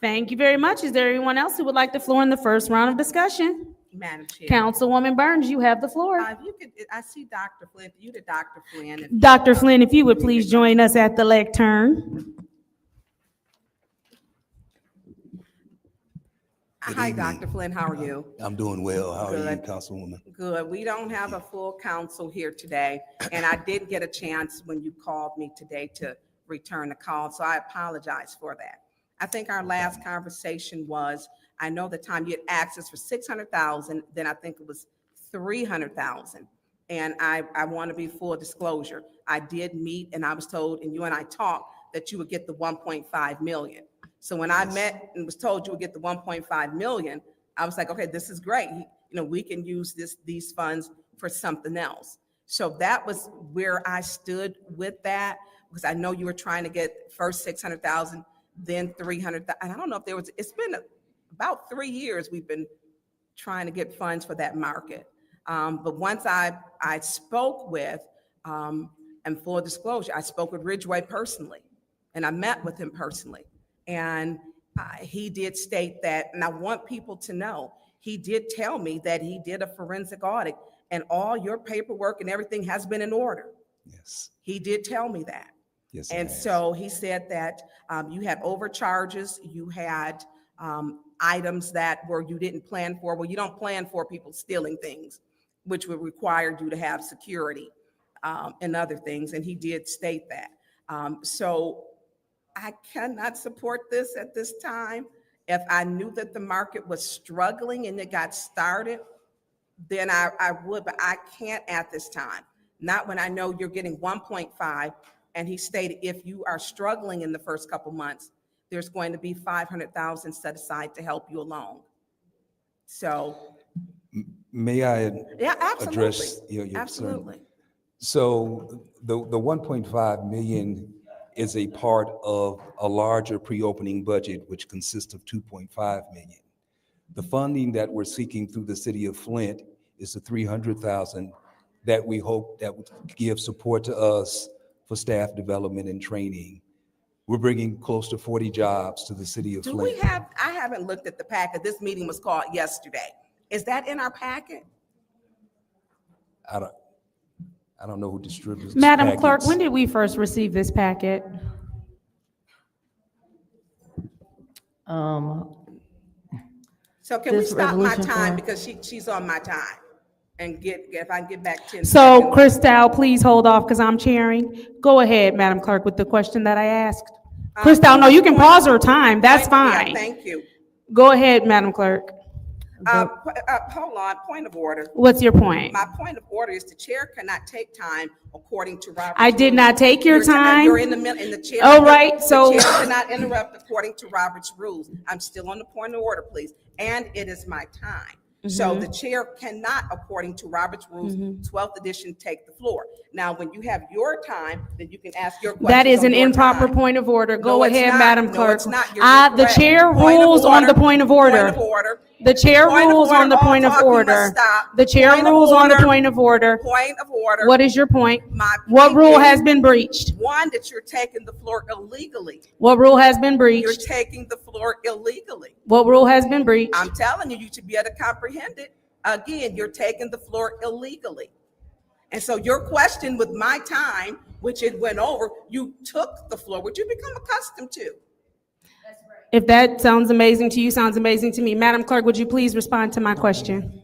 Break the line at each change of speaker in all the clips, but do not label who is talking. Thank you very much. Is there anyone else who would like the floor in the first round of discussion?
Madam Chair.
Councilwoman Burns, you have the floor.
Uh, If you could, I see Dr. Flynn, you the Dr. Flynn. if-
Dr. Flynn, if you would please join us at the lectern.
Hi,
evening.
Dr. Flynn, how are you?
I'm doing well. How are you,
Good.
Councilwoman?
Good. We don't have a full council here today, and I did get a chance when you called me today to return the call, so I apologize for that. I think our last conversation was, I know the time you had asked us for six hundred thousand, then I think it was three hundred thousand. And I, I want to be full disclosure. I did meet and I was told, and you and I talked, that you would get the one point five million. So when I met and was told you would get the one point five million, I was like, okay, this is great. You know, we can use this, these funds for something else. So that was where I stood with that, because I know you were trying to get first six hundred thousand, then three hundred. And I don't know if there was, it's been about three years we've been trying to get funds for that market. Um, but once I, I spoke with, um, and full disclosure, I spoke with Ridgeway personally, and I met with him personally. And uh, he did state that, and I want people to know, he did tell me that he did a forensic audit, and all your paperwork and everything has been in order.
Yes,
He did tell me that.
yes. it
And
has.
so he said that um, you had overcharges, you had um, items that were, you didn't plan for. Well, you don't plan for people stealing things, which would require you to have security um, and other things, and he did state that. Um, So I cannot support this at this time. If I knew that the market was struggling and it got started, then I, I would, but I can't at this time. Not when I know you're getting one point five. And he stated if you are struggling in the first couple months, there's going to be five hundred thousand set aside to help you along. So,
May I
yeah, absolutely,
address your, your concern?
absolutely.
So the, the 1.5 million is a part of a larger pre-opening budget, which consists of 2.5 million. The funding that we're seeking through the city of Flint is the 300,000 that we hope that would give support to us for staff development and training. We're bringing close to 40 jobs to the city of
Do
Flint.
we have, I haven't looked at the packet. This meeting was called yesterday. Is that in our packet?
I don't, I don't know who distributes. these
Madam Clerk, when
packets.
did we first receive this packet?
Um,
So can we
This
stop my
resolution
time
for-
because she, she's on my time? And get, if I can get back ten.
So
seconds.
Christal, please hold off because I'm chairing. Go ahead, Madam Clerk, with the question that I asked. Christal, no, you can pause her time. That's
Yeah,
fine.
Thank you.
Go ahead, Madam Clerk.
Uh, p- uh, hold on, point of order.
What's your point?
My point of order is the chair cannot take time according to Robert.
I did not take your time.
You're in the middle, in the chair.
All right, so-
The chair cannot interrupt according to Robert's rules. I'm still on the point of order, please. And it is my time. So
Mm-hmm.
the chair cannot, according to Robert's rules, 12th edition, take the floor. Now, when you have your time, then you can ask your questions.
That is
on
an
your
improper
time.
point of order. Go
No, it's
ahead,
not.
Madam
No,
Clerk.
it's not. You're
I- The
incorrect.
chair
Point of
rules on the
order.
point of
Point
order.
of order.
The chair
Point of
rules on
order.
the
All
point of
talking must
order.
stop.
The chair
Point of
rules on the
order.
point of order.
Point of order.
What is your point?
My
What
point
rule
is-
has been breached?
One, that you're taking the floor illegally.
What rule has been
You're
breached?
taking the floor illegally.
What rule has been breached?
I'm telling you, you should be able to comprehend it. Again, you're taking the floor illegally. And so your question with my time, which it went over, you took the floor, which you become accustomed to.
If that sounds amazing to you, sounds amazing to me. Madam Clerk, would you please respond to my question?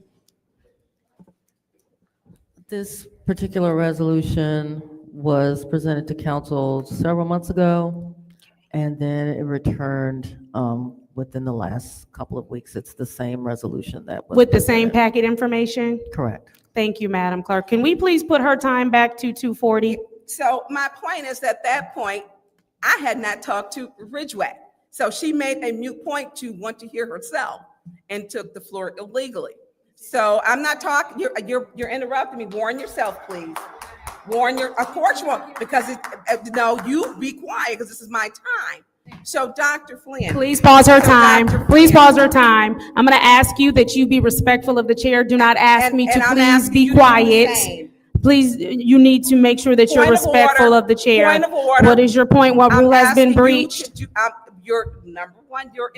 This particular resolution was presented to council several months ago, and then it returned um, within the last couple of weeks. It's the same resolution that was.
With the same
presented.
packet information?
Correct.
Thank you, Madam Clerk. Can we please put her time back to 2:40?
So my point is at that point, I had not talked to Ridgeway. So she made a mute point to want to hear herself and took the floor illegally. So I'm not talking, you're, you're, you're interrupting me. Warn yourself, please. Warn your, of course you won't, because it, uh, no, you be quiet, because this is my time. So Dr. Flynn.
Please pause her
So
time.
Dr.
Please
Flynn-
pause her time. I'm going to ask you that you be respectful of the chair. Do not ask
And-
me to
and I'm
please
asking
be
you to do the
quiet.
same.
Please, you need to make sure that you're
Point of order.
respectful of the chair.
Point of order.
What is your point? What
I'm
rule has
asking
been
you to
breached?
do- I'm- You're, number one, you're